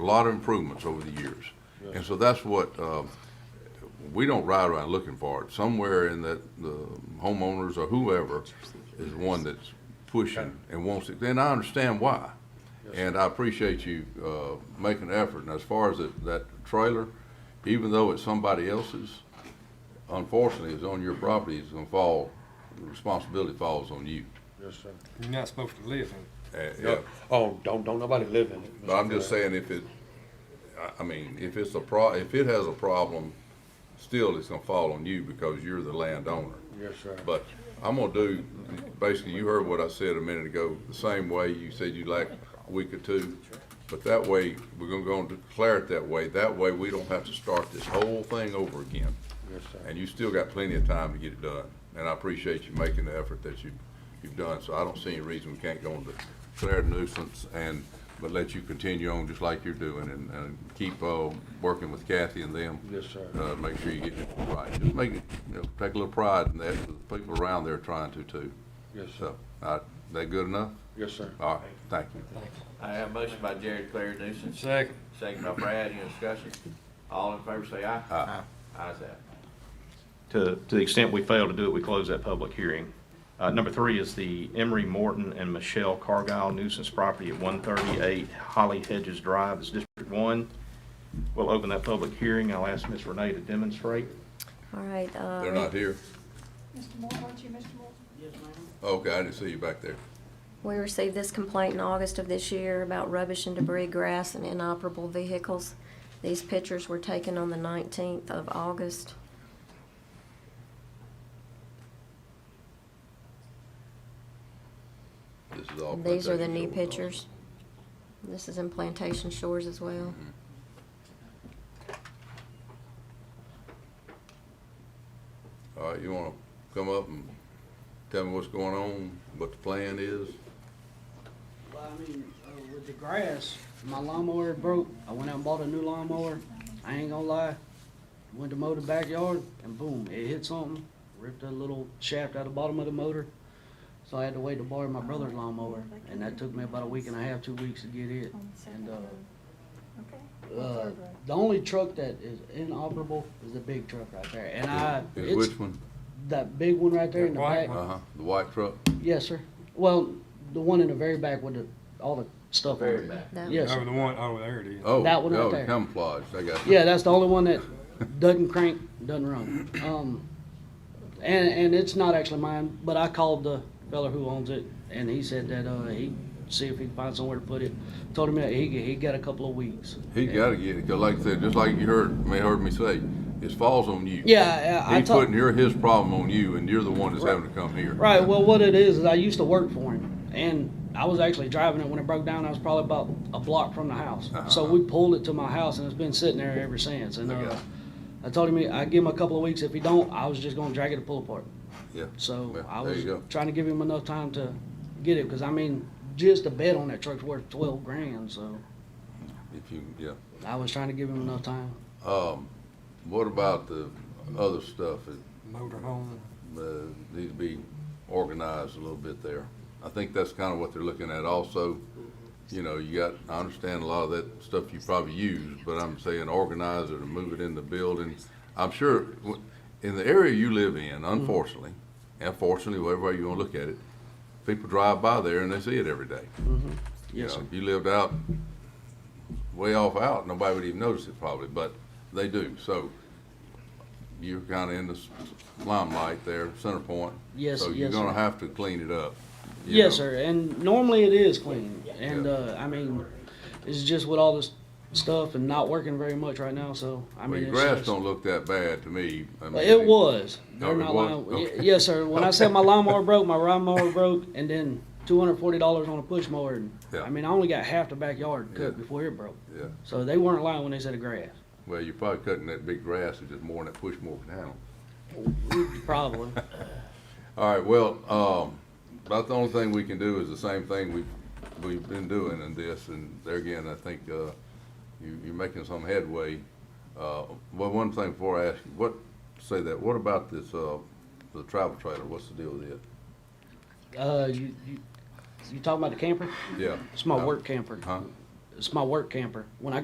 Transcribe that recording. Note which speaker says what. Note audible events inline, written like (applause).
Speaker 1: a lot of improvements over the years. And so that's what, uh, we don't ride around looking for it. Somewhere in that, the homeowners or whoever is one that's pushing and wants it, and I understand why. And I appreciate you, uh, making an effort. And as far as that, that trailer, even though it's somebody else's, unfortunately, it's on your property, it's gonna fall, the responsibility falls on you.
Speaker 2: Yes, sir.
Speaker 3: You're not supposed to live in
Speaker 1: Uh, yeah.
Speaker 2: No, oh, don't, don't nobody live in it.
Speaker 1: But I'm just saying if it, I, I mean, if it's a pro, if it has a problem, still it's gonna fall on you because you're the landowner.
Speaker 2: Yes, sir.
Speaker 1: But I'm gonna do, basically, you heard what I said a minute ago, the same way you said you'd like a week or two. But that way, we're gonna go and declare it that way. That way, we don't have to start this whole thing over again.
Speaker 2: Yes, sir.
Speaker 1: And you still got plenty of time to get it done. And I appreciate you making the effort that you, you've done, so I don't see any reason we can't go on to declare the nuisance and, but let you continue on just like you're doing and, and keep, uh, working with Kathy and them.
Speaker 2: Yes, sir.
Speaker 1: Uh, make sure you get it right. Just make it, you know, take a little pride in that, 'cause the people around there are trying to too.
Speaker 2: Yes, sir.
Speaker 1: So, uh, that good enough?
Speaker 2: Yes, sir.
Speaker 1: All right, thank you.
Speaker 4: I have a motion by Jared Claire nuisance.
Speaker 3: Second.
Speaker 4: Second by Brad, any discussion? All in favor say aye.
Speaker 1: Aye.
Speaker 4: Ayes have. it.
Speaker 5: To, to the extent we fail to do it, we close that public hearing. Uh, number three is the Emery Morton and Michelle Cargile nuisance property at one thirty-eight Holly Hedges Drive is District One. We'll open that public hearing. I'll ask Ms. Renee to demonstrate.
Speaker 6: All right, uh.
Speaker 1: They're not here?
Speaker 7: Mr. Moore, weren't you Mr. Moore?
Speaker 1: Okay, I didn't see you back there.
Speaker 6: We received this complaint in August of this year about rubbish and debris, grass, and inoperable vehicles. These pictures were taken on the 19th of August.
Speaker 1: This is all.
Speaker 6: These are the
Speaker 1: Plantation
Speaker 6: new
Speaker 1: Shores.
Speaker 6: pictures. This is in Plantation Shores as well.
Speaker 1: All right, you wanna come up and tell me what's going on, what the plan is?
Speaker 8: Well, I mean, uh, with the grass, my lawnmower broke. I went out and bought a new lawnmower. I ain't gonna lie. Went to mow the backyard and boom, it hit something. Ripped a little shaft out the bottom of the motor. So I had to wait to borrow my brother's lawnmower, and that took me about a week and a half, two weeks to get it.
Speaker 7: On the second
Speaker 8: And uh,
Speaker 7: row. Okay.
Speaker 8: uh, the only truck that is inoperable is the big truck right there, and I
Speaker 1: Is
Speaker 8: Uh, it's
Speaker 1: which one?
Speaker 8: that big one right there in the
Speaker 3: That white
Speaker 8: back.
Speaker 3: one?
Speaker 1: Uh-huh, the white truck?
Speaker 8: Yes, sir. Well, the one in the very back with the, all the stuff on
Speaker 2: Very
Speaker 8: it.
Speaker 2: bad.
Speaker 6: That-
Speaker 8: Yes,
Speaker 3: over
Speaker 8: sir.
Speaker 3: the one, oh, there it is.
Speaker 1: Oh,
Speaker 8: That one right
Speaker 1: oh,
Speaker 8: there.
Speaker 1: camouflage, I got you.
Speaker 8: Yeah, that's the only one that doesn't crank, doesn't run. Um, and, and it's not actually mine, but I called the fella who owns it, and he said that, uh, he'd see if he could find somewhere to put it. Told him that he, he got a couple of weeks.
Speaker 1: He gotta get it, 'cause like I said, just like you heard, may heard me say, it falls on you.
Speaker 8: Yeah, I, I
Speaker 1: He
Speaker 8: told.
Speaker 1: putting your, his problem on you, and you're the one that's having to come here.
Speaker 8: Right. Well, what it is is I used to work for him, and I was actually driving it when it broke down. I was probably about a block from the house, so we pulled it to my house, and it's been sitting there ever since. And
Speaker 1: Okay.
Speaker 8: uh, I told him I give him a couple of weeks. If he don't, I was just gonna drag it to pull apart.
Speaker 1: Yeah.
Speaker 8: So
Speaker 1: Well,
Speaker 8: I
Speaker 1: There
Speaker 8: was
Speaker 1: you go.
Speaker 8: trying to give him enough time to get it, because I mean, just a bet on that truck's worth twelve grand. So
Speaker 1: If you, yeah.
Speaker 8: I was trying to give him enough time.
Speaker 1: Um, what about the other stuff that
Speaker 3: Motorhome.
Speaker 1: uh, need to be organized a little bit there. I think that's kind of what they're looking at also. You know, you got, I understand a lot of that stuff you probably use, but I'm saying organize it and move it in the building. I'm sure, w- in the area you live in, unfortunately, and fortunately, whatever way you want to look at it, people drive by there and they see it every day. You
Speaker 8: Yes,
Speaker 1: know,
Speaker 8: sir.
Speaker 1: If you lived out, way off out, nobody would even notice it probably, but they do, so you're kinda in the s- limelight there, center point.
Speaker 8: Yes,
Speaker 1: So you're
Speaker 8: yes,
Speaker 1: gonna
Speaker 8: sir.
Speaker 1: have to clean it up. you
Speaker 8: Yes,
Speaker 1: know.
Speaker 8: sir. And normally it is clean. And
Speaker 1: Yeah.
Speaker 8: uh, I mean, it's just with all this stuff and not working very much right now. So I
Speaker 1: Well,
Speaker 8: mean,
Speaker 1: your
Speaker 8: it's
Speaker 1: grass
Speaker 8: just-
Speaker 1: don't look that bad to me. I mean,
Speaker 8: It was.
Speaker 1: No,
Speaker 8: They're
Speaker 1: it
Speaker 8: not
Speaker 1: wasn't?
Speaker 8: lying. Y-
Speaker 1: Okay.
Speaker 8: Yes, sir. When I said my lawnmower
Speaker 1: (laughs)
Speaker 8: broke, my lawnmower broke, and then two hundred forty dollars on a push mower. And,
Speaker 1: Yeah.
Speaker 8: I mean, I only got half the backyard cut
Speaker 1: Yeah.
Speaker 8: before it broke.
Speaker 1: Yeah,
Speaker 8: So they weren't lying when they said the grass.
Speaker 1: well, you're probably cutting that big grass and just mooring that push more down.
Speaker 8: Probably.
Speaker 1: All right, well, um, about the only thing we can do is the same thing we've, we've been doing in this, and there again, I think, uh, you, you're making some headway. Uh, well, one thing before I ask you, what, say that, what about this, uh, the travel trailer, what's the deal with it?
Speaker 8: uh, you, you you talking about the camper?
Speaker 1: Yeah. Uh,
Speaker 8: It's my work camper.
Speaker 1: Huh?
Speaker 8: It's my work camper. When I